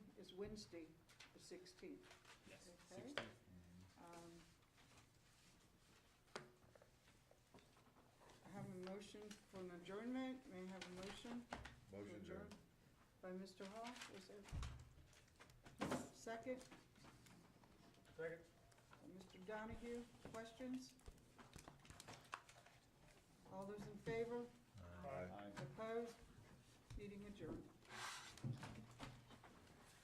Wednesday, the sixteenth. Yes. Okay. Sixteenth. Um, I have a motion for an adjournment, may I have a motion? to Motion adjourn? adjourned. By Mr. Hall, was there? Second, Second. by Mr. Donahue, questions? All those in favor, Aye. opposed, meeting adjourned.